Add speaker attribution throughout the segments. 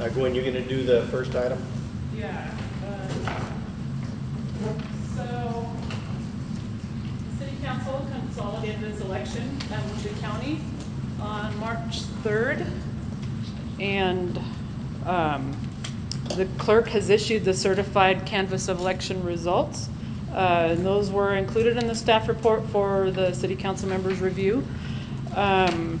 Speaker 1: Uh, Gwen, you gonna do the first item?
Speaker 2: Yeah. um, So, City Council consolidated its election at Wichita County on March 3rd. And um, the clerk has issued the certified canvass of election results. Uh, And those were included in the staff report for the city council members' review. Um,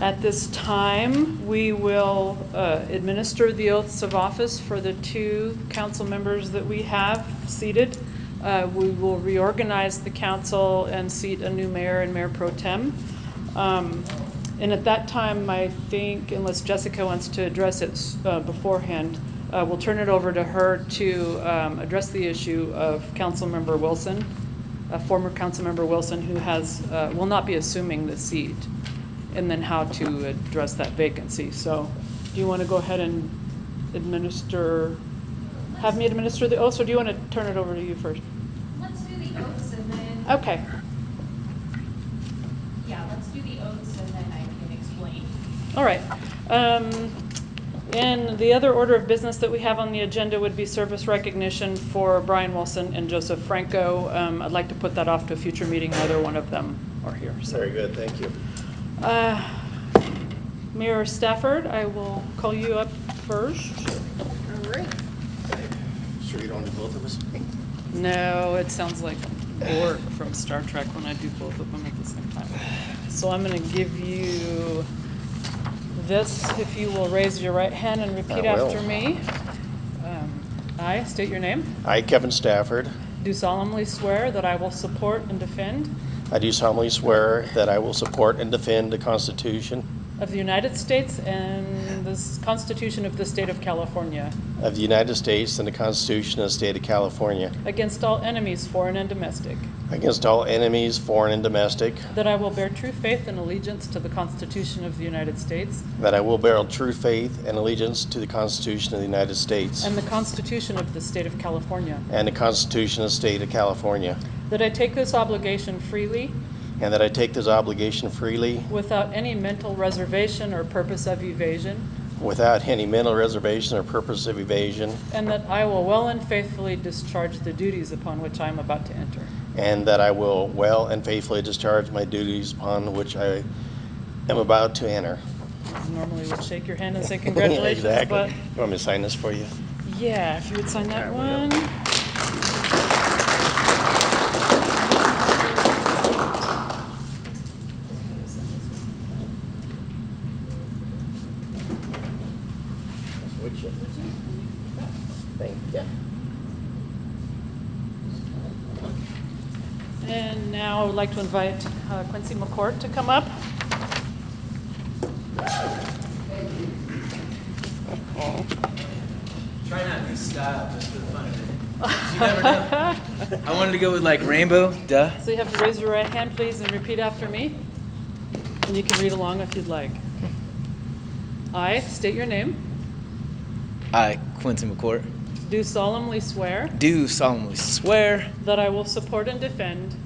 Speaker 2: at this time, we will uh, administer the oaths of office for the two council members that we have seated. Uh, We will reorganize the council and seat a new mayor and mayor pro tem. Um, And at that time, I think, unless Jessica wants to address it uh, beforehand, uh, we'll turn it over to her to um, address the issue of Councilmember Wilson, a former Councilmember Wilson who has, uh, will not be assuming the seat and then how to address that vacancy. So do you want to go ahead and administer, have me administer the oath, or do you want to turn it over to you first?
Speaker 3: Let's do the oaths and then.
Speaker 2: Okay.
Speaker 3: Yeah, let's do the oaths and then I can explain.
Speaker 2: All right. Um, And the other order of business that we have on the agenda would be service recognition for Brian Wilson and Joseph Franco. Um, I'd like to put that off to a future meeting, neither one of them are here, so.
Speaker 1: Very good, thank you.
Speaker 2: Uh, Mayor Stafford, I will call you up first.
Speaker 4: All right.
Speaker 1: Sure you don't do both of us?
Speaker 2: No, it sounds like Borg from Star Trek when I do both of them at the same time. So I'm going to give you this, if you will raise your right hand and repeat
Speaker 1: I will.
Speaker 2: after me. Um, I state your name.
Speaker 1: I, Kevin Stafford,
Speaker 2: Do solemnly swear that I will support and defend
Speaker 1: I do solemnly swear that I will support and defend the Constitution
Speaker 2: of the United States and the s- Constitution of the State of California
Speaker 1: of the United States and the Constitution of the State of California
Speaker 2: against all enemies, foreign and domestic.
Speaker 1: against all enemies, foreign and domestic,
Speaker 2: That I will bear true faith and allegiance to the Constitution of the United States
Speaker 1: that I will bear true faith and allegiance to the Constitution of the United States
Speaker 2: And the Constitution of the State of California.
Speaker 1: and the Constitution of the State of California,
Speaker 2: That I take this obligation freely,
Speaker 1: and that I take this obligation freely
Speaker 2: without any mental reservation or purpose of evasion,
Speaker 1: without any mental reservation or purpose of evasion,
Speaker 2: and that I will well and faithfully discharge the duties upon which I am about to enter.
Speaker 1: And that I will well and faithfully discharge my duties upon which I am about to enter.
Speaker 2: Normally would shake your hand and say congratulations,
Speaker 1: Exactly.
Speaker 2: but
Speaker 1: You want me to sign this for you?
Speaker 2: yeah, if you would sign that
Speaker 1: I
Speaker 2: one.
Speaker 1: will. Thank you.
Speaker 2: And now I would like to invite uh, Quincy McCourt to come up.
Speaker 5: Try not to be style, just for the fun of it. You never know. I wanted to go with like rainbow, duh.
Speaker 2: So you have to raise your right hand, please, and repeat after me. And you can read along if you'd like. I state your name,
Speaker 5: I, Quentin McCourt,
Speaker 2: do solemnly swear
Speaker 5: do solemnly swear.
Speaker 2: that I will support and defend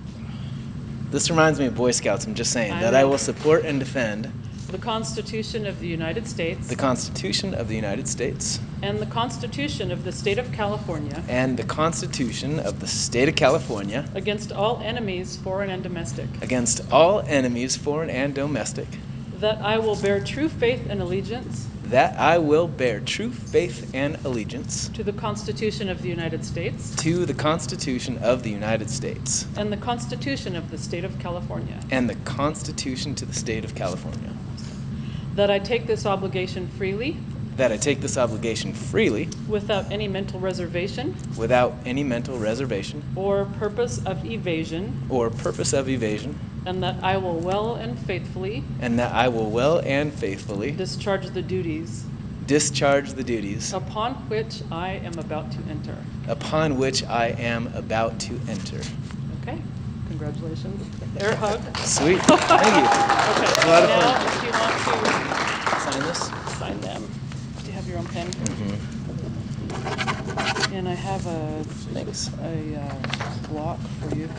Speaker 5: This reminds me of Boy Scouts, I'm just saying,
Speaker 2: I
Speaker 5: that I
Speaker 2: know.
Speaker 5: will support and defend
Speaker 2: the Constitution of the United States
Speaker 5: the Constitution of the United States
Speaker 2: and the Constitution of the State of California
Speaker 5: and the Constitution of the State of California
Speaker 2: against all enemies, foreign and domestic,
Speaker 5: against all enemies, foreign and domestic,
Speaker 2: that I will bear true faith and allegiance
Speaker 5: that I will bear true faith and allegiance
Speaker 2: to the Constitution of the United States
Speaker 5: to the Constitution of the United States
Speaker 2: and the Constitution of the State of California,
Speaker 5: and the Constitution to the State of California.
Speaker 2: that I take this obligation freely
Speaker 5: That I take this obligation freely,
Speaker 2: Without any mental reservation
Speaker 5: without any mental reservation
Speaker 2: or purpose of evasion,
Speaker 5: or purpose of evasion,
Speaker 2: and that I will well and faithfully
Speaker 5: and that I will well and faithfully
Speaker 2: discharge the duties
Speaker 5: discharge the duties
Speaker 2: upon which I am about to enter.
Speaker 5: upon which I am about to enter.
Speaker 2: Okay, congratulations. Air hug.
Speaker 5: Sweet. Thank
Speaker 2: Okay,
Speaker 5: A lot of fun.
Speaker 2: now if you want
Speaker 5: you. Sign this.
Speaker 2: to sign them, do you have your own pen? And I have a,
Speaker 5: Thanks.
Speaker 2: a uh, block for you.